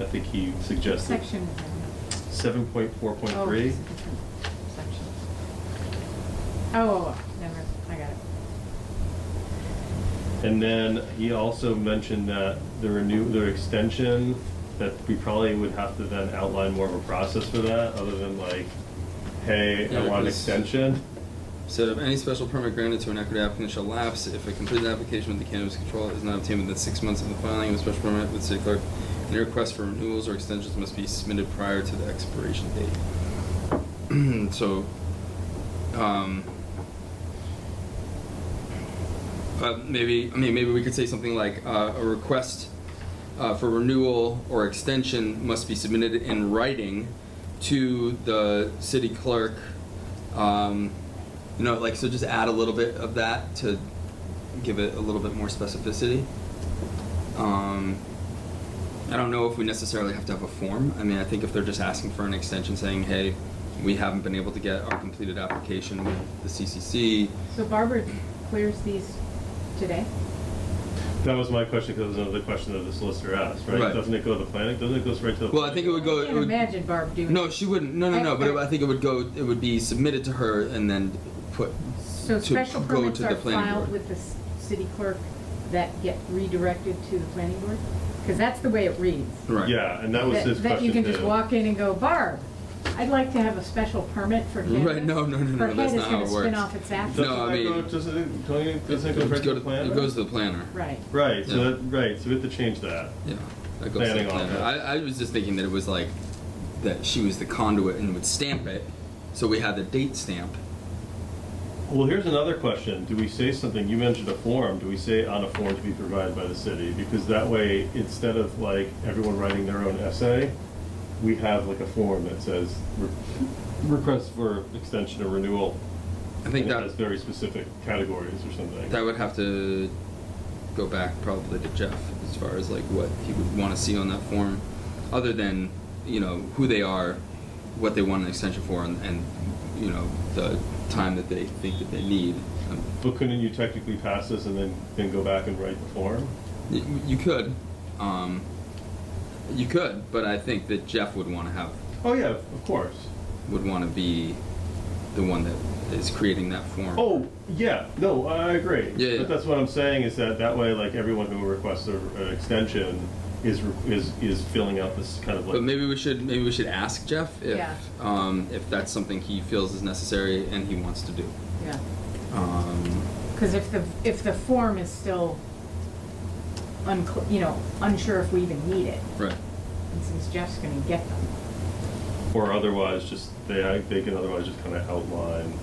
I think he suggested Section is in. seven point four point Oh, three. it's a different section. Oh, never, I got it. And then he also mentioned that the renew, the extension, that we probably would have to then outline more of a process for that, other than like, hey, I Yeah, want an 'cause- extension. So, any special permit granted to an equity applicant shall lapse if a completed application with the cannabis control is not obtained within six months of the filing of a special permit with city clerk. Any requests for renewals or extensions must be submitted prior to the expiration date. so, um, uh, maybe I mean maybe we could say something like uh, a request uh, for renewal or extension must be submitted in writing to the city clerk. Um, you know, like so, just add a little bit of that to give it a little bit more specificity. Um, I don't know if we necessarily have to have a form. I mean, I think if they're just asking for an extension, saying, "Hey, we haven't been able to get our completed application with the CCC." So Barbara clears these today? That was my question, because that was another question that the solicitor asked, right? Right. Doesn't it go to the planning, doesn't it go straight to the? Well, I think it would go. I it can't would- imagine Barb doing. No, it. she wouldn't. No, no, no. But it- I think it would go. It would be submitted to her and then put So to special go permits to the are planning filed board. with the s- city clerk that get redirected to the planning board? Because that's the way it reads. right. Yeah, and that was his question That you can just too. walk in and go, Barb, I'd like to have a special permit for cannabis. Right, no, no, no, no, Her that's head is not how gonna it spin works. off its Doesn't axis. No, I that go- mean- Doesn't it, don't you- doesn't it go straight to the planner? It goes to the planner. Right. Right, so Yeah. that, right, so we have to change that. Yeah. That goes Planning to the office. planner. I, I was just thinking that it was like that she was the conduit and would stamp it, so we had the date stamp. Well, here's another question. Do we say something, you mentioned a form, do we say on a form to be provided by the city? Because that way, instead of like everyone writing their own essay, we have like a form that says re- request for extension or renewal. I think And it that has very specific categories or something. that would have to go back probably to Jeff as far as like what he would want to see on that form, other than you know who they are, what they want an extension for, and, and you know the time that they think that they need. Um, But couldn't you technically pass this and then, then go back and write the form? y- you could, um, you could, but I think that Jeff would want to have Oh, yeah, of course. would want to be the one that is creating that form. Oh, yeah, no, I agree. Yeah, yeah. But that's what I'm saying is that that way, like everyone who requests a, an extension is re- is is filling out this kind of like. But maybe we should maybe we should ask Jeff if Yeah. um, if that's something he feels is necessary and he wants to do. Yeah, Um, because if the, if the form is still unclear, you know, unsure if we even need it, right. and since Jeff's gonna get them. or otherwise, just they I- they can otherwise just kind of outline,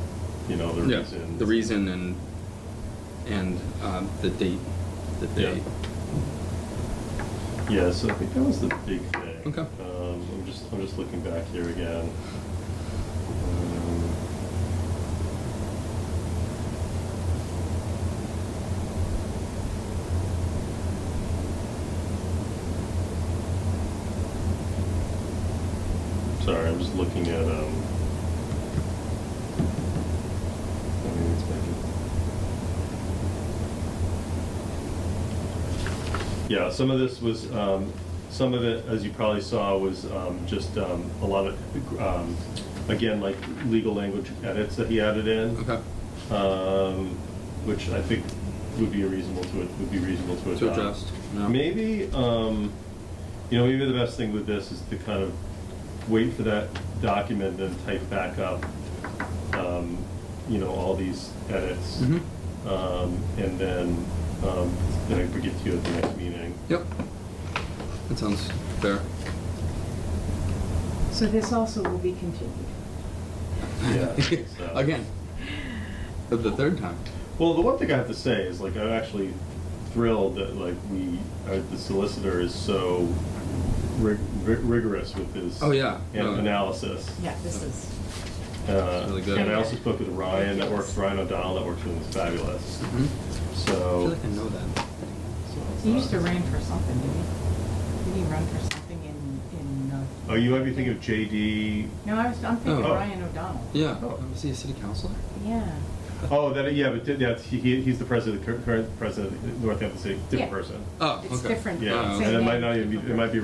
you know, the yeah. reasons. The reason and and um, the date that they. Yeah. Yeah, so I think that was the big thing. Okay. Um, I'm just I'm just looking back here again. Um, Sorry, I'm just looking at um. I mean, it's making- Yeah, some of this was, um, some of it, as you probably saw, was um, just um, a lot of, um, again, like legal language edits that he added in, Okay. um, which I think would be a reasonable to would be reasonable to adopt. To adjust. Yeah. Maybe, um, you know, maybe the best thing with this is to kind of wait for that document, then type back up, um, you know, all these edits, Mhm. um, and then um, then I could get to you at the next meeting. Yep. That sounds fair. So this also will be continued. Yeah, I think so. Again. The- The third time. Well, the one thing I have to say is like I'm actually thrilled that like we uh, the solicitor is so rig- rig- rigorous with his Oh, yeah. an- No. analysis. Yeah, this is, Uh, It's really good. And I also spoke with Ryan that works Ryan O'Donnell that works with him is fabulous. hmm I feel So like I know that. so it's he used to not- run for something, didn't he? Did he run for something in, in, uh? Oh, you might be thinking of JD. No, I was, I'm thinking Oh. Ryan O'Donnell. Yeah. Oh. Was he a city councilor? Yeah, Oh, that yeah, but did- that's he, he- he's the president, current president of Northampton City, different Yeah. person. Oh. it's okay. different. Yeah, Oh, Same and it name, might not even be, different it might be